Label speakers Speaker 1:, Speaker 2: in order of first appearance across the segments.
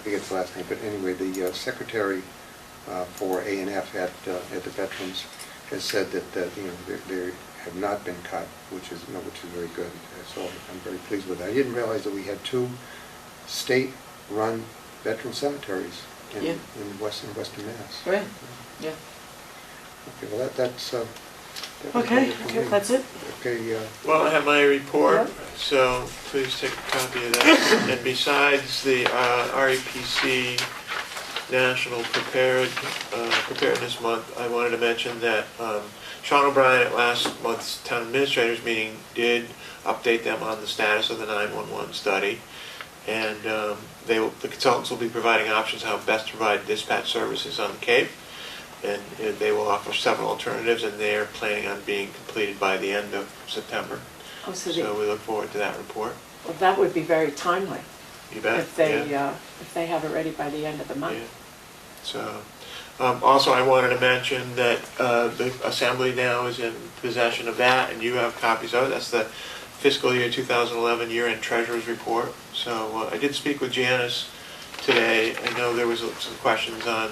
Speaker 1: I forget his last name, but anyway, the uh, secretary uh, for A and F at, uh, at the Veterans has said that, that, you know, they- they have not been cut, which is, you know, which is very good. So I'm very pleased with that. I didn't realize that we had two state-run veteran cemeteries in,
Speaker 2: Yeah.
Speaker 1: in western, western Mass.
Speaker 2: Right, yeah.
Speaker 1: Okay, well, that, that's, uh, that was
Speaker 2: Okay,
Speaker 1: all for
Speaker 2: okay,
Speaker 1: me.
Speaker 2: that's it.
Speaker 1: Okay, uh,
Speaker 3: Well, I have my report,
Speaker 2: Yeah.
Speaker 3: so please take a copy of that. And besides the uh, REPC National Prepared, uh, Preparedness Month, I wanted to mention that um, Sean O'Brien at last month's town administrators meeting did update them on the status of the 911 study. And um, they, will- the consultants will be providing options how best to provide dispatch services on the Cape. And uh, they will offer several alternatives, and they are planning on being completed by the end of September.
Speaker 2: Oh, so they-
Speaker 3: So we look forward to that report.
Speaker 2: well, that would be very timely
Speaker 3: You bet?
Speaker 2: if they,
Speaker 3: Yeah.
Speaker 2: uh, if they have it ready by the end of the
Speaker 3: Yeah.
Speaker 2: month.
Speaker 3: So, um, also I wanted to mention that uh, the Assembly now is in possession of that, and you have copies of it. That's the fiscal year 2011 year-end treasurer's report. So uh, I did speak with Janice today. I know there was some questions on,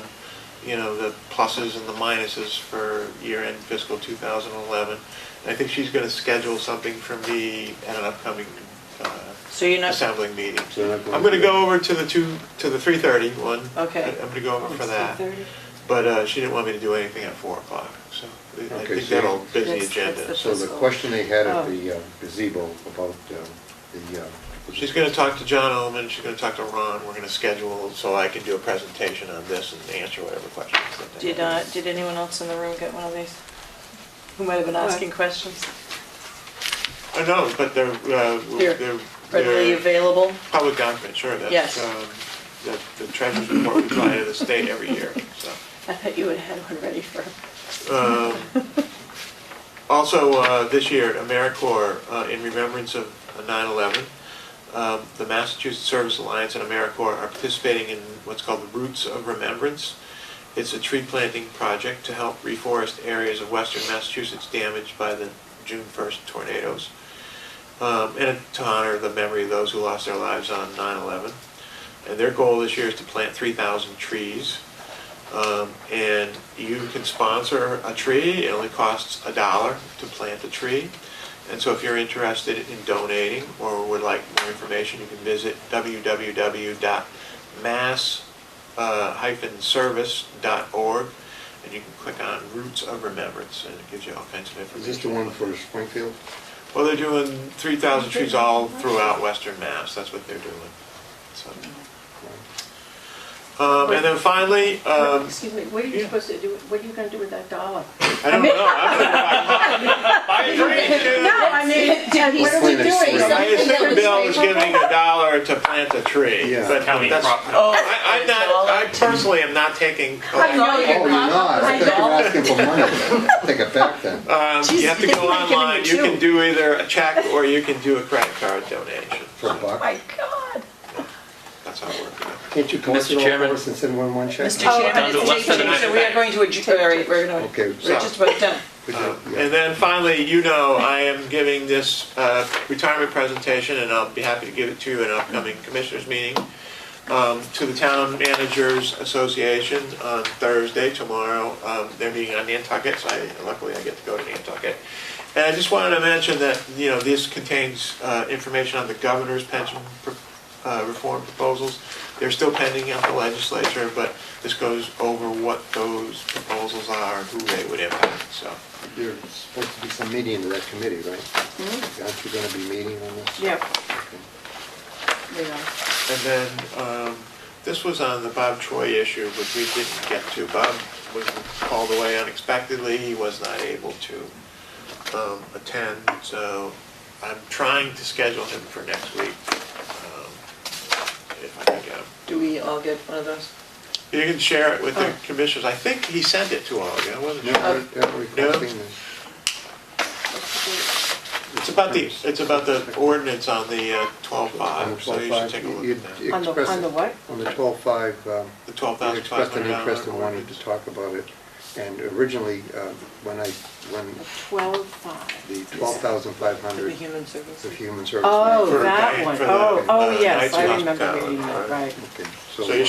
Speaker 3: you know, the pluses and the minuses for year-end fiscal 2011. And I think she's going to schedule something for me at an upcoming uh,
Speaker 2: So you're not,
Speaker 3: assembly meeting.
Speaker 1: So you're not going
Speaker 3: I'm gonna
Speaker 1: to-
Speaker 3: go over to the two, to the three thirty one.
Speaker 2: Okay.
Speaker 3: I- I'm gonna go over
Speaker 2: Oh,
Speaker 3: for
Speaker 2: it's
Speaker 3: that,
Speaker 2: 3:30?
Speaker 3: but, uh, she didn't want me to do anything at four o'clock, so I- I
Speaker 1: Okay,
Speaker 3: think
Speaker 1: so-
Speaker 3: that'll busy
Speaker 2: That's- that's
Speaker 3: agenda.
Speaker 2: the-
Speaker 3: So
Speaker 1: so the question they had
Speaker 2: Oh.
Speaker 1: at the uh, gazebo about uh, the. uh,
Speaker 3: She's gonna talk to John Omen, she's gonna talk to Ron, we're gonna schedule, so I can do a presentation on this and answer whatever questions that they have.
Speaker 4: Did, uh, did anyone else in the room get one of these? Who might have been
Speaker 2: What?
Speaker 4: asking questions?
Speaker 3: I know, but they're, uh,
Speaker 4: They're
Speaker 3: they're, they're.
Speaker 4: Readily available?
Speaker 3: Public document, sure,
Speaker 4: Yes.
Speaker 3: that's, um, that the treasurer's report we apply to the state every year, so.
Speaker 2: I thought you would have had one ready for,
Speaker 3: Um, Also, uh, this year, at AmeriCorps, uh, in remembrance of 9/11, um, the Massachusetts Service Alliance and AmeriCorps are participating in what's called the Roots of Remembrance. It's a tree planting project to help reforest areas of western Massachusetts damaged by the June 1st tornadoes, um, and to honor the memory of those who lost their lives on 9/11. And their goal this year is to plant 3,000 trees. Um, and you can sponsor a tree. It only costs a dollar to plant a tree. And so if you're interested in donating or would like more information, you can visit uh, www.mass-service.org and you can click on Roots of Remembrance and it gives you all kinds of
Speaker 1: Is
Speaker 3: information.
Speaker 1: this the one for Springfield?
Speaker 3: Well, they're doing 3,000 trees all throughout Western Mass. That's what they're doing. So, um, and then finally, um,
Speaker 2: excuse me, what are you
Speaker 3: yeah.
Speaker 2: supposed to do, what are you gonna do with that dollar?
Speaker 3: I don't know. I'm gonna buy a drink, you know.
Speaker 2: I mean, did
Speaker 1: what are we doing?
Speaker 3: I assume Bill was giving a dollar to plant a tree,
Speaker 1: Yeah.
Speaker 3: but
Speaker 5: County
Speaker 3: that's, I-
Speaker 5: property.
Speaker 4: Oh.
Speaker 3: I'm not, I personally am not taking.
Speaker 2: I know
Speaker 1: Oh, you're
Speaker 2: you're not.
Speaker 1: not, I thought you were asking for money. Take it back then.
Speaker 2: Uh,
Speaker 3: Um, you have to
Speaker 2: Jeez,
Speaker 3: go
Speaker 2: they might give
Speaker 3: online,
Speaker 2: me
Speaker 3: you
Speaker 2: two.
Speaker 3: can do either a check or you can do a credit card donation.
Speaker 1: For a buck.
Speaker 2: My God.
Speaker 3: That's how it works. out.
Speaker 1: Can't you collect
Speaker 5: Mr.
Speaker 1: it all
Speaker 5: Chairman.
Speaker 1: for us and send one one check?
Speaker 4: Mr.
Speaker 2: Oh,
Speaker 4: Chairman,
Speaker 5: under
Speaker 4: it's
Speaker 5: less than
Speaker 4: taken, so we are going to adjourn, we're going to,
Speaker 1: Okay.
Speaker 4: we're just about done.
Speaker 1: Could you-
Speaker 3: Um,
Speaker 1: yeah.
Speaker 3: And then finally, you know, I am giving this uh, retirement presentation, and I'll be happy to give it to you in an upcoming commissioners meeting, um, to the Town Managers Association on Thursday, tomorrow. Um, They're meeting on Nantucket, so I- luckily I get to go to Nantucket. And I just wanted to mention that, you know, this contains uh, information on the governor's pension pro- uh, reform proposals. They're still pending at the legislature, but this goes over what those proposals are, and who they would impact, so.
Speaker 1: There's supposed to be some meeting to that committee,
Speaker 2: Hmm?
Speaker 1: right? Aren't you gonna be meeting on this?
Speaker 2: Yep,
Speaker 1: Okay.
Speaker 2: we are.
Speaker 3: And then, um, this was on the Bob Troy issue, which we didn't get to. Bob was called away unexpectedly, he was not able to, um, attend, so I'm trying to schedule him for next week, um, if I can get him.
Speaker 4: Do we all get one of those?
Speaker 3: You can share it with the commissioners, I think he sent it to all of you, I wasn't sure.
Speaker 1: Never- never requesting this.
Speaker 3: It's about the, it's about the ordinance on the
Speaker 1: On the
Speaker 3: twelve-five, so you should
Speaker 1: 12.5,
Speaker 3: take a look
Speaker 1: you-
Speaker 3: at that.
Speaker 1: you
Speaker 2: On the-
Speaker 1: expressed-
Speaker 2: on the what?
Speaker 1: On the twelve-five, um, you
Speaker 3: The twelve thousand five
Speaker 1: expressed an
Speaker 3: hundred dollar
Speaker 1: interest and wanted
Speaker 3: ordinance.
Speaker 1: to talk about it. And originally, uh, when I, when
Speaker 2: Twelve five.
Speaker 1: the twelve thousand five
Speaker 4: To the
Speaker 1: hundred
Speaker 4: human services.
Speaker 1: of human services.
Speaker 2: Oh,
Speaker 3: For-
Speaker 2: that one.
Speaker 3: for the,
Speaker 2: Oh, oh,
Speaker 3: uh,
Speaker 2: yes,
Speaker 3: Knights
Speaker 2: I
Speaker 3: of
Speaker 2: remember
Speaker 3: Hospitality,
Speaker 2: reading that,
Speaker 3: right.
Speaker 2: right.
Speaker 1: Okay,
Speaker 3: So you're